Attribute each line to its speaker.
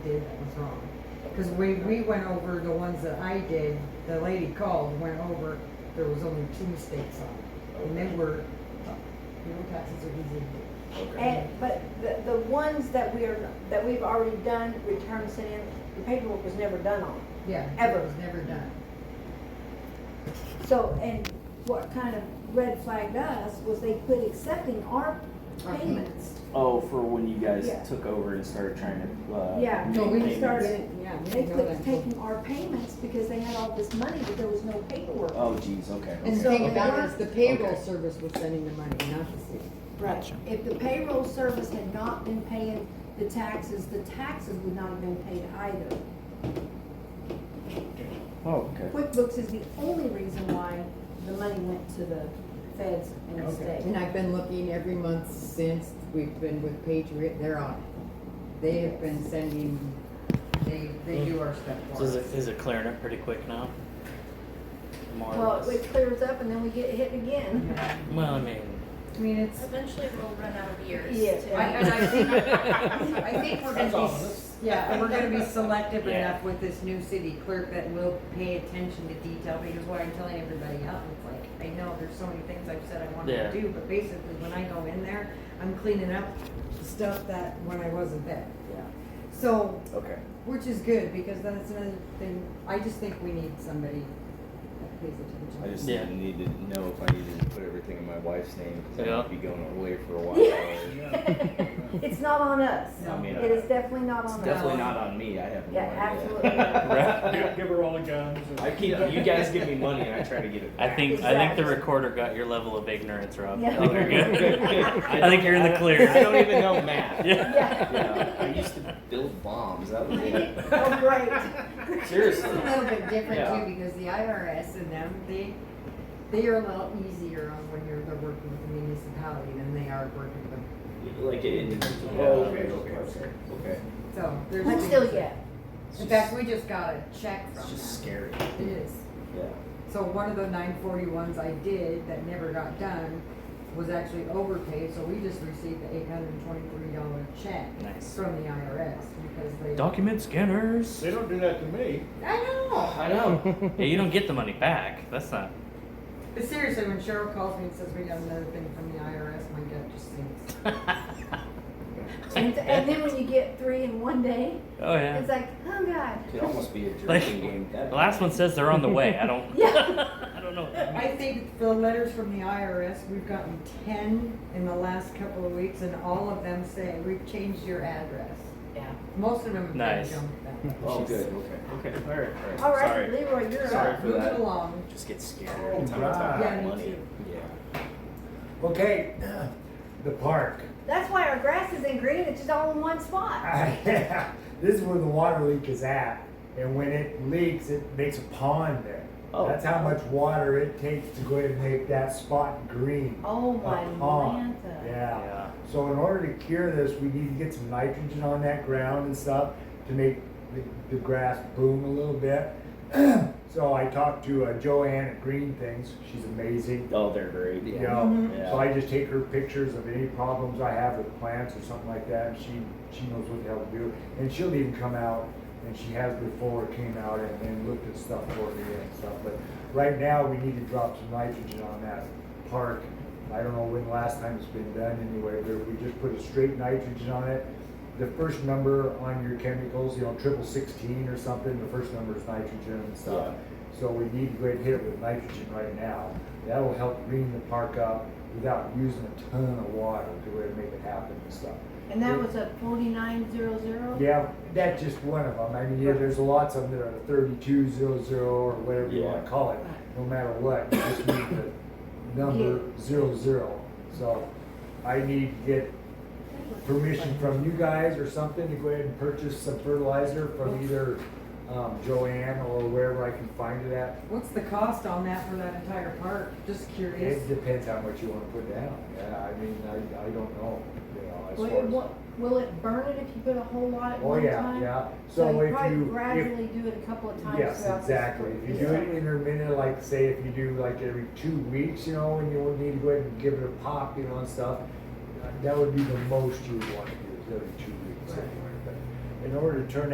Speaker 1: Cause we, we went over the ones that I did, the lady called, went over, there was only two mistakes on it. And they were, you know, taxes are easy to do.
Speaker 2: And, but the, the ones that we are, that we've already done, returned, sent in, the paperwork was never done on.
Speaker 1: Yeah.
Speaker 2: Ever.
Speaker 1: It was never done.
Speaker 2: So, and what kind of red flagged us was they quit accepting our
Speaker 1: Our
Speaker 2: payments.
Speaker 3: Oh, for when you guys
Speaker 2: Yeah.
Speaker 3: took over and started trying to. Uh,
Speaker 2: Yeah.
Speaker 1: No,
Speaker 3: make
Speaker 1: we
Speaker 3: payments.
Speaker 2: started-
Speaker 1: yeah, we
Speaker 2: They
Speaker 1: didn't know
Speaker 2: quit
Speaker 1: that.
Speaker 2: taking our payments because they had all this money, but there was no paperwork.
Speaker 3: Oh, geez. Okay.
Speaker 1: And the
Speaker 2: So
Speaker 1: thing
Speaker 2: they
Speaker 1: about it
Speaker 2: were-
Speaker 1: is the payroll
Speaker 3: Okay.
Speaker 1: service was sending the money, not the city.
Speaker 2: Right. If the payroll service had not been paying the taxes, the taxes would not have been paid either.
Speaker 3: Oh, okay.
Speaker 2: QuickBooks is the only reason why the money went to the feds and the
Speaker 3: Okay.
Speaker 2: state.
Speaker 1: And I've been looking every month since we've been with Patriot, they're on it. They have been sending, they, they do our stuff
Speaker 4: So
Speaker 1: for
Speaker 4: is
Speaker 1: us.
Speaker 4: it, is it clearing up pretty quick now? More or
Speaker 2: Well,
Speaker 4: less?
Speaker 2: it clears up and then we get hit again.
Speaker 1: I
Speaker 4: Well, I mean,
Speaker 1: mean, it's,
Speaker 5: Eventually, we'll run out of years.
Speaker 2: Yes.
Speaker 5: to-
Speaker 1: I, and I think, I think we're
Speaker 6: That's
Speaker 1: gonna be,
Speaker 6: ominous.
Speaker 1: yeah, we're gonna be selective
Speaker 4: Yeah.
Speaker 1: enough with this new city clerk that we'll pay attention to detail, because what I'm telling everybody out, it's like, I know there's so many things I've said I wanted
Speaker 4: Yeah.
Speaker 1: to do, but basically, when I go in there, I'm cleaning up stuff that, when I wasn't there.
Speaker 3: Yeah.
Speaker 1: So,
Speaker 3: Okay.
Speaker 1: Which is good, because that's another thing, I just think we need somebody that pays
Speaker 6: I
Speaker 1: attention.
Speaker 6: just
Speaker 4: Yeah.
Speaker 6: needed to know if I needed to put everything in my wife's name because
Speaker 4: Yeah.
Speaker 6: I might be going away for a while.
Speaker 2: It's not on us.
Speaker 6: I mean,
Speaker 2: It is definitely not on
Speaker 6: it's
Speaker 2: us.
Speaker 6: definitely not on me. I have no
Speaker 2: Oh, Yeah,
Speaker 6: idea.
Speaker 2: absolutely
Speaker 4: Right.
Speaker 7: Give her all the guns. and-
Speaker 6: I keep you guys give me money and I try to get it.
Speaker 4: I
Speaker 6: back. Oh,
Speaker 4: think I think the
Speaker 2: Exactly.
Speaker 4: recorder got your level of ignorance, Rob. I
Speaker 2: Yeah.
Speaker 4: think you're good. I think you're in the clear.
Speaker 6: I don't even know math.
Speaker 4: yeah.
Speaker 6: Yeah, I
Speaker 2: Yeah.
Speaker 6: used to build bombs. That was it.
Speaker 2: Oh, great.
Speaker 1: It's a
Speaker 6: Seriously.
Speaker 1: little bit different
Speaker 6: Yeah.
Speaker 1: too, because the IRS and them, they, they are a little easier on when you're, they're working with the municipality than they are working with,
Speaker 6: Like it individual.
Speaker 3: Yeah.
Speaker 6: okay, okay, okay, okay.
Speaker 1: so there's.
Speaker 2: But
Speaker 1: things-
Speaker 2: still, yeah.
Speaker 6: It's
Speaker 1: In
Speaker 6: just-
Speaker 1: fact, we just got a check
Speaker 6: It's
Speaker 1: from
Speaker 6: just
Speaker 1: them.
Speaker 6: scary.
Speaker 1: It is.
Speaker 6: Yeah.
Speaker 1: So one of the nine forty ones I did that never got done was actually overpaid, so we just received the eight hundred and twenty-three dollar check
Speaker 4: Nice.
Speaker 1: from the IRS because they.
Speaker 4: Document scanners.
Speaker 7: They don't do that to me.
Speaker 1: I know.
Speaker 6: I know.
Speaker 4: Yeah, you don't get the money back. That's not.
Speaker 1: But seriously, when Cheryl calls me and says we got another thing from the IRS, my gut just sinks.
Speaker 4: Oh,
Speaker 2: And, and then when you get three in one day,
Speaker 4: Oh yeah.
Speaker 2: it's like, oh God.
Speaker 6: It could almost be a drinking
Speaker 4: Like,
Speaker 6: game. at That
Speaker 4: The last one says they're on the way. I don't.
Speaker 2: Yeah.
Speaker 4: I don't know. what that means.
Speaker 1: I think the letters from the IRS, we've gotten ten in the last couple of weeks, and all of them say we've changed your address.
Speaker 2: Yeah.
Speaker 1: Most of them have been
Speaker 4: Nice.
Speaker 1: junked back.
Speaker 6: Oh, good. Okay.
Speaker 4: Okay. All right.
Speaker 6: All right.
Speaker 2: All right,
Speaker 6: Sorry.
Speaker 2: Leroy, you're
Speaker 6: Sorry
Speaker 2: up.
Speaker 6: for
Speaker 1: Move it
Speaker 6: that.
Speaker 1: along.
Speaker 6: Just get scared
Speaker 7: Oh,
Speaker 6: every time I talk
Speaker 7: God.
Speaker 1: Yeah,
Speaker 6: about
Speaker 1: me
Speaker 6: money.
Speaker 1: too.
Speaker 6: Yeah.
Speaker 7: Okay, the park.
Speaker 2: That's why our grass is in green. It's just all in one spot.
Speaker 7: this is where the water leak is at, and when it leaks, it makes a pond there.
Speaker 6: Oh.
Speaker 7: That's how much water it takes to go ahead and make that spot green.
Speaker 2: Oh my
Speaker 7: A pond.
Speaker 2: Lanta.
Speaker 7: Yeah.
Speaker 4: Yeah.
Speaker 7: So in order to cure this, we need to get some nitrogen on that ground and stuff to make the, the grass boom a little bit. so I talked to uh, Joanne at Green Things. She's amazing.
Speaker 6: Oh, they're great.
Speaker 7: you
Speaker 6: Yeah.
Speaker 7: know.
Speaker 1: Mm-hmm.
Speaker 6: Yeah.
Speaker 7: So I just take her pictures of any problems I have with plants or something like that, and she, she knows what the hell to do. And she'll even come out, and she has before, came out and, and looked at stuff for me and stuff. But right now, we need to drop some nitrogen on that park. I don't know when the last time it's been done anyway, but if we just put a straight nitrogen on it, the first number on your chemicals, you know, triple sixteen or something, the first number is nitrogen and stuff. So we need to go ahead and hit it with nitrogen right now. That'll help green the park up without using a ton of water to really make it happen and stuff.
Speaker 2: And that was a forty-nine zero zero?
Speaker 7: Yeah, that's just one of them. I mean, yeah, there's lots of them that are thirty-two zero zero or whatever you wanna
Speaker 6: Yeah.
Speaker 7: call it, no matter what, you just need the number zero zero. So I need to get permission from you guys or something to go ahead and purchase some fertilizer from either, um, Joanne or wherever I can find it at.
Speaker 1: What's the cost on that for that entire park? Just curious.
Speaker 7: It depends how much you wanna put down, yeah, I mean, I, I don't know, you know, as
Speaker 2: Will
Speaker 7: far
Speaker 2: it,
Speaker 7: as.
Speaker 2: wa- will it burn it if you put a whole lot at
Speaker 7: Oh,
Speaker 2: one
Speaker 7: yeah,
Speaker 2: time?
Speaker 7: yeah,
Speaker 2: So
Speaker 7: so
Speaker 2: you
Speaker 7: if
Speaker 2: probably
Speaker 7: you, if,
Speaker 2: gradually do it a couple of times
Speaker 7: Yes,
Speaker 2: throughout the
Speaker 7: exactly.
Speaker 2: spring.
Speaker 7: If you do it intermittent, like say if you do like every two weeks, you know, and you would need to go ahead and give it a pop, you know, and stuff, uh, that would be the most you would want to do is every two weeks
Speaker 1: Right.
Speaker 7: anyway. But in order to turn